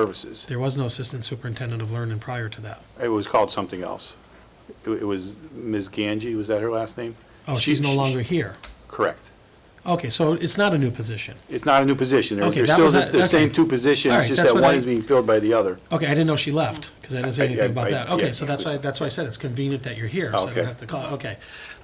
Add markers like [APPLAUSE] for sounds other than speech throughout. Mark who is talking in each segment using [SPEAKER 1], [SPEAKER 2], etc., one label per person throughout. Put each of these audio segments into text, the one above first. [SPEAKER 1] Services.
[SPEAKER 2] There was no assistant superintendent of learning prior to that.
[SPEAKER 1] It was called something else. It it was Ms. Ganji, was that her last name?
[SPEAKER 2] Oh,
[SPEAKER 1] She-
[SPEAKER 2] she's no
[SPEAKER 1] she-
[SPEAKER 2] longer here.
[SPEAKER 1] Correct.
[SPEAKER 2] Okay, so it's not a new position.
[SPEAKER 1] It's not a new position. There-
[SPEAKER 2] Okay,
[SPEAKER 1] There's
[SPEAKER 2] that
[SPEAKER 1] still
[SPEAKER 2] was
[SPEAKER 1] the
[SPEAKER 2] a-
[SPEAKER 1] the same
[SPEAKER 2] okay.
[SPEAKER 1] two
[SPEAKER 2] All
[SPEAKER 1] positions,
[SPEAKER 2] right,
[SPEAKER 1] just
[SPEAKER 2] that's
[SPEAKER 1] that
[SPEAKER 2] what
[SPEAKER 1] one
[SPEAKER 2] I-
[SPEAKER 1] is being filled by the other.
[SPEAKER 2] Okay, I didn't know she left, because I didn't say
[SPEAKER 1] I-
[SPEAKER 2] anything
[SPEAKER 1] I-
[SPEAKER 2] about that.
[SPEAKER 1] I- yeah.
[SPEAKER 2] Okay, so that's why, that's why I said it's convenient that you're here, so I
[SPEAKER 1] Okay.
[SPEAKER 2] don't have to call, okay.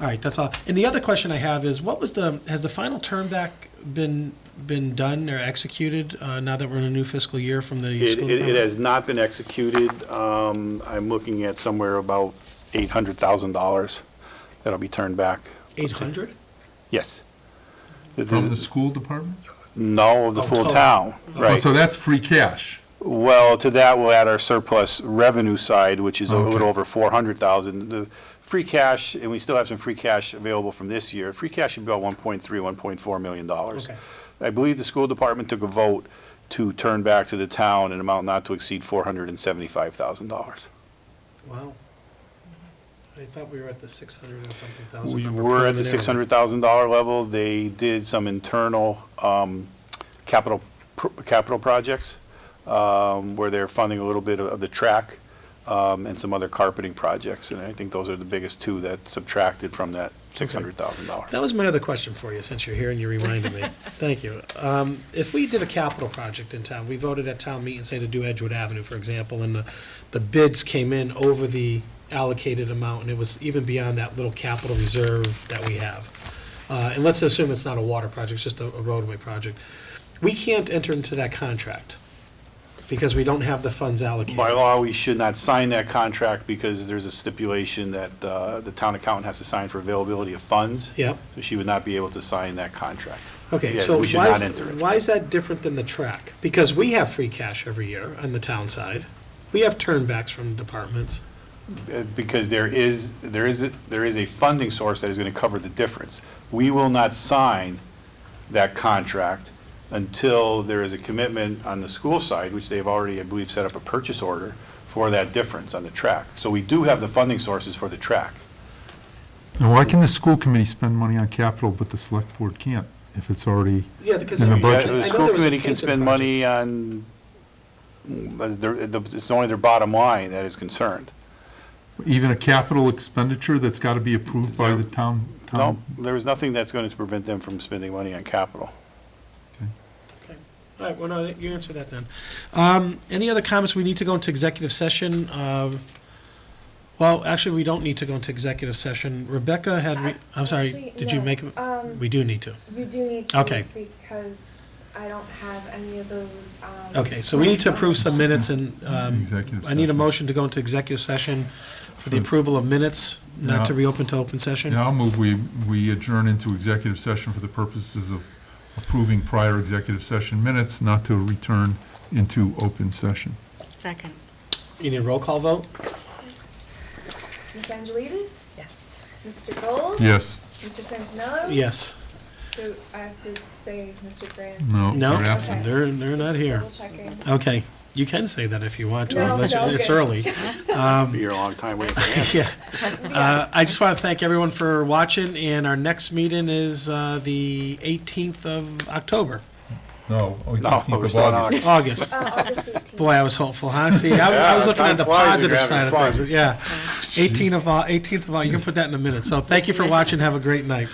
[SPEAKER 2] All right, that's all. And the other question I have is, what was the, has the final term back been, been done or executed, uh, now that we're in a new fiscal year from the
[SPEAKER 1] It
[SPEAKER 2] school
[SPEAKER 1] it- it
[SPEAKER 2] department?
[SPEAKER 1] has not been executed. Um, I'm looking at somewhere about $800,000 that'll be turned back.
[SPEAKER 2] Eight hundred?
[SPEAKER 1] Yes.
[SPEAKER 3] From the school department?
[SPEAKER 1] No, of the
[SPEAKER 2] Oh,
[SPEAKER 1] full
[SPEAKER 2] total.
[SPEAKER 1] town,
[SPEAKER 3] Oh,
[SPEAKER 1] right.
[SPEAKER 3] So that's free cash.
[SPEAKER 1] Well, to that, we'll add our surplus revenue side, which is a
[SPEAKER 3] Okay.
[SPEAKER 1] little over four hundred thousand. The free cash, and we still have some free cash available from this year, free cash should be about 1.3, 1.4 million dollars.
[SPEAKER 2] Okay.
[SPEAKER 1] I believe the school department took a vote to turn back to the town an amount not to exceed four hundred and seventy-five thousand dollars.
[SPEAKER 2] Wow. I thought we were at the six hundred and something thousand
[SPEAKER 1] We
[SPEAKER 2] number.
[SPEAKER 1] were at the
[SPEAKER 2] preliminarily.
[SPEAKER 1] six hundred thousand dollar level. They did some internal um, capital, pr- capital projects um, where they're funding a little bit of the track um, and some other carpeting projects. And I think those are the biggest two that subtracted from that six hundred thousand dollar.
[SPEAKER 2] That was my other question for you, since you're here and you reminded me. Thank you. Um, if we did a capital project in town, we voted at town meeting, say to do Edgewood Avenue, for example, and the, the bids came in over the allocated amount, and it was even beyond that little capital reserve that we have. Uh, and let's assume it's not a water project, it's just a a roadway project. We can't enter into that contract because we don't have the funds allocated.
[SPEAKER 1] By law, we should not sign that contract because there's a stipulation that uh, the town accountant has to sign for availability of funds.
[SPEAKER 2] Yep.
[SPEAKER 1] So she would not be able to sign that contract.
[SPEAKER 2] Okay,
[SPEAKER 1] Yeah,
[SPEAKER 2] so
[SPEAKER 1] we should
[SPEAKER 2] why
[SPEAKER 1] not
[SPEAKER 2] is,
[SPEAKER 1] enter it.
[SPEAKER 2] why is that different than the track? Because we have free cash every year on the town side. We have turnbacks from departments.
[SPEAKER 1] uh, because there is, there is, a- there is a funding source that is going to cover the difference. We will not sign that contract until there is a commitment on the school side, which they've already, I believe, set up a purchase order for that difference on the track. So we do have the funding sources for the track.
[SPEAKER 3] And why can the school committee spend money on capital, but the select board can't, if it's already,
[SPEAKER 2] Yeah, because.
[SPEAKER 3] In the
[SPEAKER 2] I- I
[SPEAKER 3] budget.
[SPEAKER 2] know
[SPEAKER 1] Uh, The
[SPEAKER 2] there
[SPEAKER 1] school
[SPEAKER 2] was a
[SPEAKER 1] committee can
[SPEAKER 2] Canton
[SPEAKER 1] spend
[SPEAKER 2] project.
[SPEAKER 1] money on, but they're- it's only their bottom line that is concerned.
[SPEAKER 3] even a capital expenditure that's got to be approved by the town?
[SPEAKER 1] No,
[SPEAKER 2] Um.
[SPEAKER 3] town-
[SPEAKER 1] there is nothing that's going to prevent them from spending money on capital.
[SPEAKER 2] All right, well, no, you answer that then. Um, any other comments? We need to go into executive session. Um, well, actually, we don't need to go into executive session. Rebecca had, re- I'm sorry,
[SPEAKER 4] Actually,
[SPEAKER 2] did you
[SPEAKER 4] no.
[SPEAKER 2] make, a-
[SPEAKER 4] Um,
[SPEAKER 2] we do need to.
[SPEAKER 4] you do need to.
[SPEAKER 2] Okay.
[SPEAKER 4] Because I don't have any of those, um.
[SPEAKER 2] Okay, so we need to approve some minutes and, um,
[SPEAKER 3] Executive
[SPEAKER 2] I need a
[SPEAKER 3] session.
[SPEAKER 2] motion to go into executive session for the approval of minutes, not to
[SPEAKER 3] Yeah.
[SPEAKER 2] reopen to open session.
[SPEAKER 3] Yeah, I'll move, we, we adjourn into executive session for the purposes of approving prior executive session minutes, not to return into open session.
[SPEAKER 5] Second.
[SPEAKER 2] You need a roll call vote?
[SPEAKER 4] Ms. Angelides?
[SPEAKER 5] Yes.
[SPEAKER 4] Mr. Gold?
[SPEAKER 3] Yes,
[SPEAKER 4] Mr. Santinello?
[SPEAKER 2] Yes.
[SPEAKER 4] Do I have to say Mr. Grant?
[SPEAKER 3] no,
[SPEAKER 2] No,
[SPEAKER 3] they're absent.
[SPEAKER 2] they're, they're not here.
[SPEAKER 4] Double checking.
[SPEAKER 2] Okay, you can say that if you want to.
[SPEAKER 4] No,
[SPEAKER 2] unless you-
[SPEAKER 4] no,
[SPEAKER 2] It's
[SPEAKER 4] okay. [LAUGHS]
[SPEAKER 2] early. Um.
[SPEAKER 1] Be here a long time waiting
[SPEAKER 2] [LAUGHS]
[SPEAKER 1] for answers.
[SPEAKER 2] Yeah. Uh, I just want to thank everyone for watching, and our next meeting is uh, the 18th of October,
[SPEAKER 3] No, oh,
[SPEAKER 1] No,
[SPEAKER 3] 15th
[SPEAKER 1] we're
[SPEAKER 3] of
[SPEAKER 1] still in
[SPEAKER 3] August.
[SPEAKER 2] August.
[SPEAKER 4] Uh, August eighteenth.
[SPEAKER 2] Boy, I was hopeful, huh? See, I I was
[SPEAKER 1] Yeah,
[SPEAKER 2] looking
[SPEAKER 1] time
[SPEAKER 2] at the
[SPEAKER 1] flies when you're
[SPEAKER 2] positive side
[SPEAKER 1] having
[SPEAKER 2] of
[SPEAKER 1] fun.
[SPEAKER 2] things. Yeah. 18 of, Au- 18th of, Au- you can put that in a minute. So thank you for watching. Have a great night.